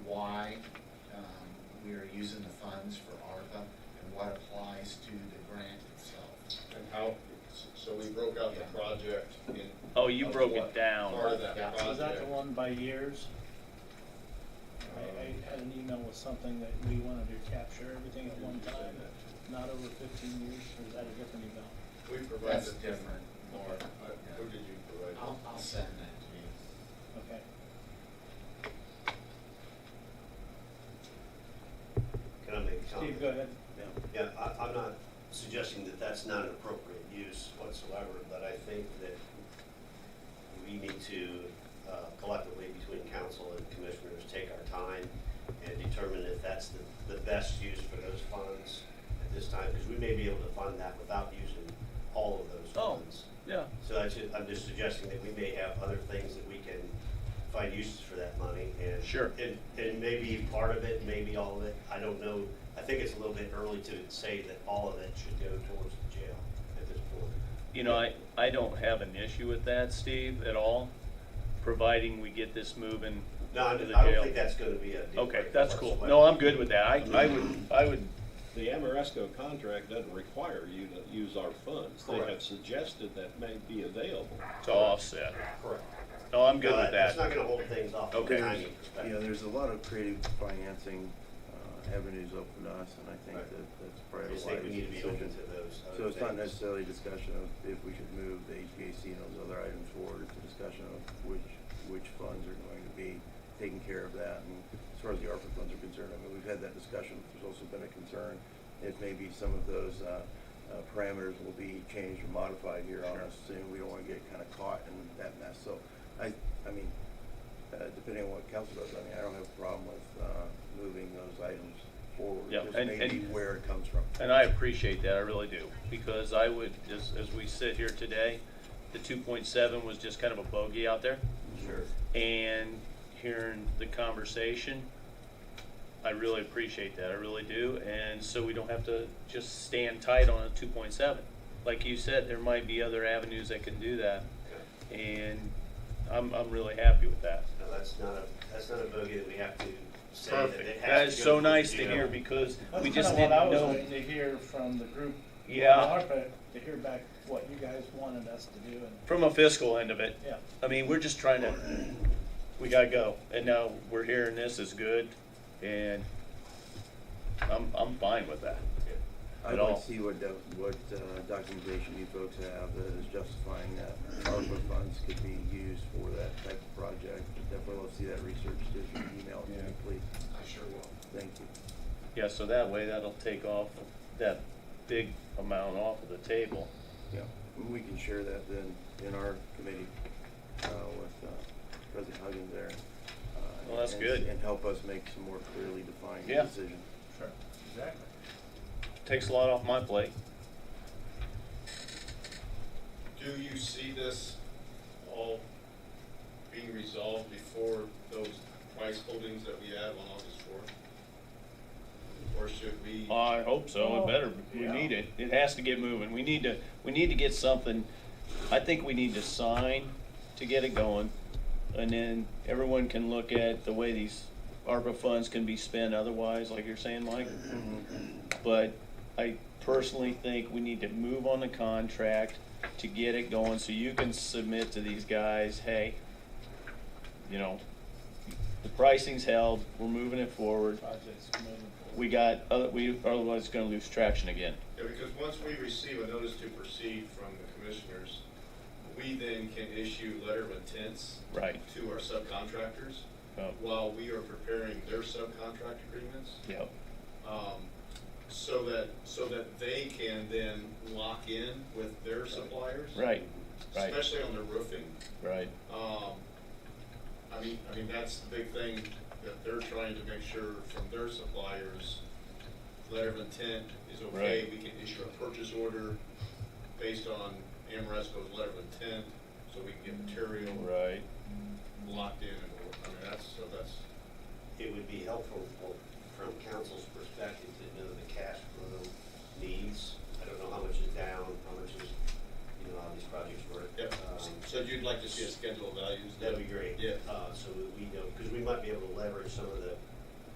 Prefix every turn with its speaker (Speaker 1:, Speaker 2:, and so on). Speaker 1: tonight. Um, We are using the funds for ARPA and what applies to the grant itself.
Speaker 2: And how, so we broke out the project in.
Speaker 3: Oh, you
Speaker 2: of
Speaker 3: broke it
Speaker 2: what
Speaker 3: down.
Speaker 2: Part of that
Speaker 1: Yeah.
Speaker 2: project.
Speaker 4: Was that the one by years? I,
Speaker 2: Um,
Speaker 4: I had an email with something that we wanted to capture everything at one time, not over fifteen years, or is that a different email?
Speaker 2: We provided.
Speaker 1: That's different,
Speaker 2: Or,
Speaker 1: Laura.
Speaker 2: uh, Who did you provide?
Speaker 1: I'll, I'll send that to you.
Speaker 4: Okay.
Speaker 5: Can I make a comment?
Speaker 4: Steve, go ahead.
Speaker 5: Yeah, I, I'm not suggesting that that's not an appropriate use whatsoever, but I think that we need to uh, collectively, between council and commissioners, take our time and determine if that's the, the best use for those funds at this time, because we may be able to fund that without using all of those
Speaker 3: Oh.
Speaker 5: funds.
Speaker 3: Yeah.
Speaker 5: So I should, I'm just suggesting that we may have other things that we can find uses for that money and.
Speaker 3: Sure.
Speaker 5: And, and maybe part of it, maybe all of it, I don't know. I think it's a little bit early to say that all of it should go towards the jail at this point.
Speaker 3: You know, I, I don't have an issue with that, Steve, at all, providing we get this moving
Speaker 5: No, I
Speaker 3: to the
Speaker 5: I don't think
Speaker 3: jail.
Speaker 5: that's gonna be a. deal
Speaker 3: Okay,
Speaker 5: breaker
Speaker 3: that's cool.
Speaker 5: whatsoever.
Speaker 3: No, I'm good with that. I, I would, I would,
Speaker 6: The Amoresco contract doesn't require you to use our funds. They have
Speaker 5: Correct.
Speaker 6: suggested that may be available.
Speaker 3: to offset.
Speaker 5: Correct.
Speaker 3: No, I'm good
Speaker 5: No,
Speaker 3: with
Speaker 5: That's
Speaker 3: that.
Speaker 5: not gonna hold things off from a
Speaker 3: Okay.
Speaker 5: timing
Speaker 7: Yeah,
Speaker 5: perspective.
Speaker 7: there's a lot of creative financing uh, avenues open to us, and I think
Speaker 5: Right.
Speaker 7: that that's
Speaker 5: I
Speaker 7: probably a
Speaker 5: just think we
Speaker 7: wise
Speaker 5: need to be open
Speaker 7: decision.
Speaker 5: to those other
Speaker 7: So it's not
Speaker 5: things.
Speaker 7: necessarily a discussion of if we should move the HVAC and those other items forward, it's a discussion of which, which funds are going to be taking care of that. And as far as the ARPA funds are concerned, I mean, we've had that discussion, there's also been a concern if maybe some of those uh, uh, parameters will be changed or modified here on us soon, we don't want to get kind of caught in that mess. So I, I mean, uh, depending on what council does, I mean, I don't have a problem with uh, moving those items forward.
Speaker 3: Yeah,
Speaker 7: Just
Speaker 3: and-
Speaker 7: maybe
Speaker 3: and-
Speaker 7: where it comes from.
Speaker 3: And I appreciate that, I really do, because I would, as, as we sit here today, the two point seven was just kind of a bogey out there.
Speaker 5: Sure.
Speaker 3: and hearing the conversation. I really appreciate that, I really do, and so we don't have to just stand tight on a two point seven. Like you said, there might be other avenues that can do that,
Speaker 5: Okay.
Speaker 3: and I'm, I'm really happy with that.
Speaker 5: No, that's not a, that's not a bogey that we have to say that it has to
Speaker 3: Perfect, that is
Speaker 5: go
Speaker 3: so
Speaker 5: towards
Speaker 3: nice
Speaker 5: the
Speaker 3: to
Speaker 5: jail.
Speaker 3: hear, because
Speaker 4: That's
Speaker 3: we
Speaker 4: kinda
Speaker 3: just
Speaker 4: what
Speaker 3: didn't
Speaker 4: I was waiting
Speaker 3: know.
Speaker 4: to hear from the group. on
Speaker 3: Yeah.
Speaker 4: ARPA, to hear back what you guys wanted us to do, and,
Speaker 3: From a fiscal end of it,
Speaker 4: yeah,
Speaker 3: I mean, we're just trying to, we gotta go, and now we're hearing this is good, and I'm, I'm fine with that.
Speaker 7: I'd
Speaker 3: at
Speaker 7: like
Speaker 3: all.
Speaker 7: to see what, do- what uh, documentation you folks have that is justifying that ARPA funds could be used for that type of project. Definitely love to see that research, just email it to me, please.
Speaker 1: I sure will.
Speaker 7: Thank you.
Speaker 3: Yeah, so that way that'll take off that big amount off of the table.
Speaker 7: Yeah, and we can share that then in our committee uh, with uh, President Huggins there. uh,
Speaker 3: Well, that's
Speaker 7: and-
Speaker 3: good.
Speaker 7: And help us make some more clearly defined
Speaker 3: Yeah.
Speaker 7: decisions.
Speaker 4: sure, exactly.
Speaker 3: Takes a lot off my plate.
Speaker 2: Do you see this all being resolved before those price holdings that we have on August fourth? Or should we?
Speaker 3: I hope so,
Speaker 4: Well,
Speaker 3: it better, we
Speaker 4: yeah.
Speaker 3: need it, it has to get moving, we need to, we need to get something, I think we need to sign to get it going, and then everyone can look at the way these ARPA funds can be spent otherwise, like you're saying, Mike.
Speaker 4: Mm-hmm.
Speaker 3: But I personally think we need to move on the contract to get it going, so you can submit to these guys, hey, you know, the pricing's held, we're moving it forward,
Speaker 4: Projects moving forward.
Speaker 3: we got, other we otherwise gonna lose traction again.
Speaker 2: Yeah, because once we receive a notice to proceed from the commissioners, we then can issue letter of intents
Speaker 3: Right.
Speaker 2: to our subcontractors
Speaker 3: Oh,
Speaker 2: uh, while we are preparing their subcontract agreements.
Speaker 3: Yep,
Speaker 2: um, so that, so that they can then lock in with their suppliers.
Speaker 3: right, right,
Speaker 2: Especially on the roofing.
Speaker 3: right.
Speaker 2: Um, I mean, I mean, that's the big thing that they're trying to make sure from their suppliers, letter of intent is okay.
Speaker 3: Right.
Speaker 2: We can issue a purchase order based on Amoresco's letter of intent, so we can get material
Speaker 3: Right.
Speaker 2: locked in and, I mean, that's, so that's,
Speaker 5: it would be helpful for, from council's perspective to know the cash flow needs. I don't know how much is down, how much is, you know, how these projects work.
Speaker 2: yep.
Speaker 5: Um,
Speaker 2: So you'd like to see a schedule of values?
Speaker 5: That'd be great.
Speaker 2: Yeah.
Speaker 5: Uh, so that we know, because we might be able to leverage some of the